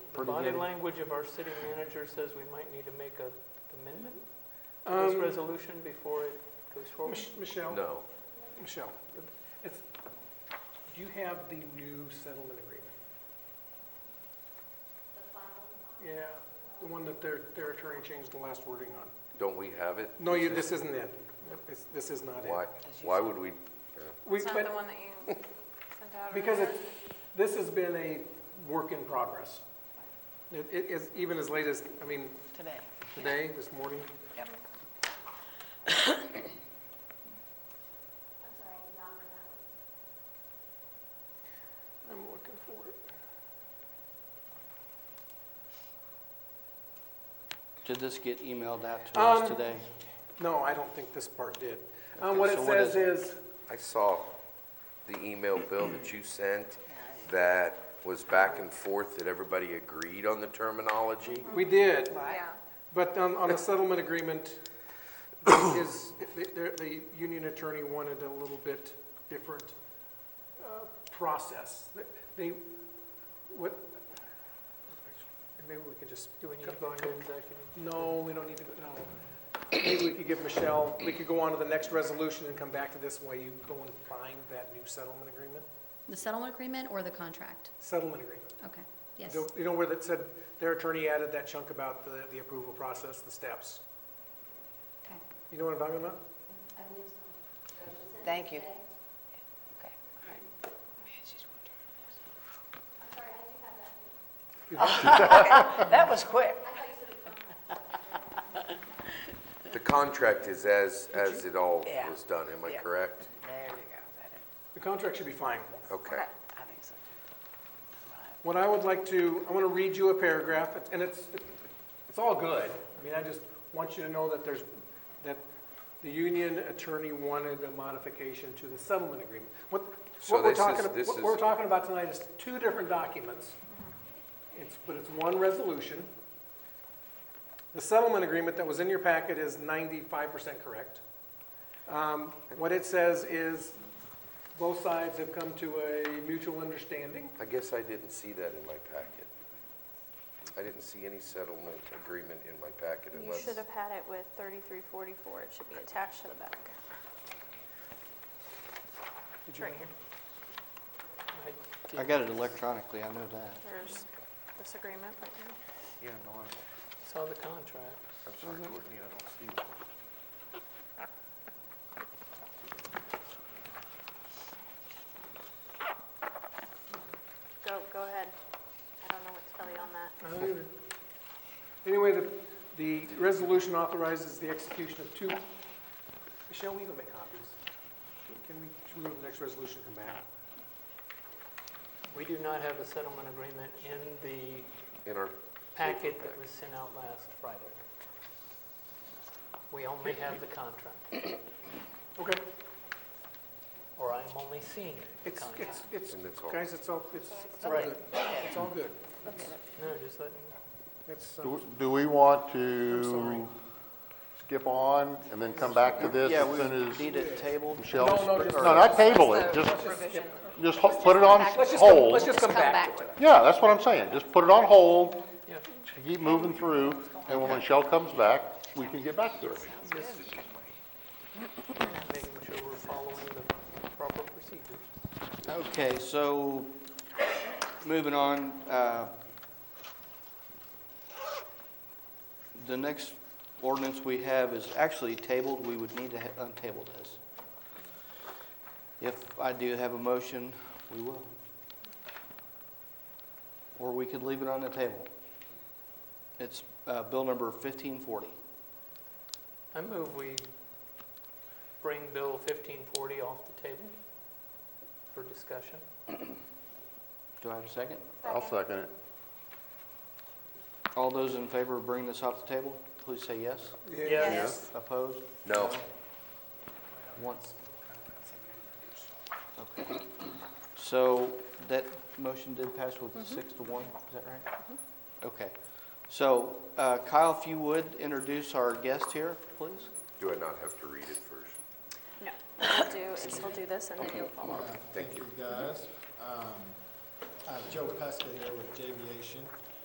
pretty Body good. language of our city manager says we might need to make a amendment to this Um, resolution before it goes forward. Mich- Michelle, No. Michelle, it's, do you have the new settlement agreement? Yeah, the one that their, their attorney changed the last wording on. Don't we have it? No, you, Is it- this isn't it. It's, this is not it. Why, why would we? yeah. We, It's not the but, one that you sent out? because earlier? it's, this has been a work in progress. It, it is, even as late as, I mean, today. today, this morning, Yep. I'm looking for it. Did this get emailed out to us Um, today? No, I don't think this part did. Uh, Okay, what it so what says is is, I saw the email, Bill, that you sent that was back and forth, that everybody agreed on the terminology. we did, Yeah, but on, on the settlement agreement, is, the, the- the union attorney wanted a little bit different uh, process. They, what, maybe we can just Do we need to go into executive? No, we don't need to, go- no. Maybe we could give Michelle, we could go on to the next resolution and come back to this while you go and find that new settlement agreement. The settlement agreement or the contract? Settlement agreement. Okay, yes. You know- You know where that said, their attorney added that chunk about the, the approval process, the steps. Okay. You know what I'm talking about? Thank you. Okay. That was quick. The contract is as, as it all Yeah. was done, am I Yeah. correct? There you go. That is- The contract should be fine. Okay. I think so. too. Right. What I would like to, I want to read you a paragraph, and it's, it's all good. I mean, I just want you to know that there's, that the union attorney wanted a modification to the settlement agreement. What, So what we're this is- talking, this what we're is- talking about tonight is two different documents. It's, but it's one resolution. The settlement agreement that was in your packet is ninety-five percent correct. Um, What it says is both sides have come to a mutual understanding. I guess I didn't see that in my packet. I didn't see any settlement agreement in my packet you unless, should have had it with 3344, it should be attached to the back. It's right here, I got it electronically, I know that. there's this agreement right here. yeah, no, I- Saw the contract. I'm sorry, Courtney, I don't see one. Go, go ahead. I don't know what to tell you on that. I don't either. Anyway, the, the resolution authorizes the execution of two, Michelle, we go make copies. Can we, should we go to the next resolution and come back? We do not have a settlement agreement in the In our, packet that was sent out last Friday. We only have the contract, Okay, or I'm only seeing the it's, contract. it's, it's, And it's all- guys, it's all, it's, it's all Right. good. It's all good. No, just let me, It's, uh, Do do we want I'm sorry. to skip on and then come back to this Yeah, as we soon as need it tabled. Michelle? No, no, just- No, not table it, That's just, the provision. just ho- put it on let's just, come- let's hold. just come back to it. Yeah, that's what I'm saying, just put it on hold, yeah, keep moving through, and when Michelle comes back, we can get back to it. making sure we're following the proper procedures. Okay, so, moving on, uh, the next ordinance we have is actually tabled, we would need to ha- untable this. If I do have a motion, we will. Or we could leave it on the table. It's uh, bill number 1540. I move we bring Bill 1540 off the table for discussion. Do I have a second? I'll second it. All those in favor of bringing this off the table, please say yes. Yes. Opposed? no, One. Okay. So that motion did pass with six to one, is that right? Okay. So uh, Kyle, if you would, introduce our guest here, please. do I not have to read it first? No, what we'll do is we'll do this and then you'll follow. Thank you, guys. Um, I have Joe Pesca here with J Aviation.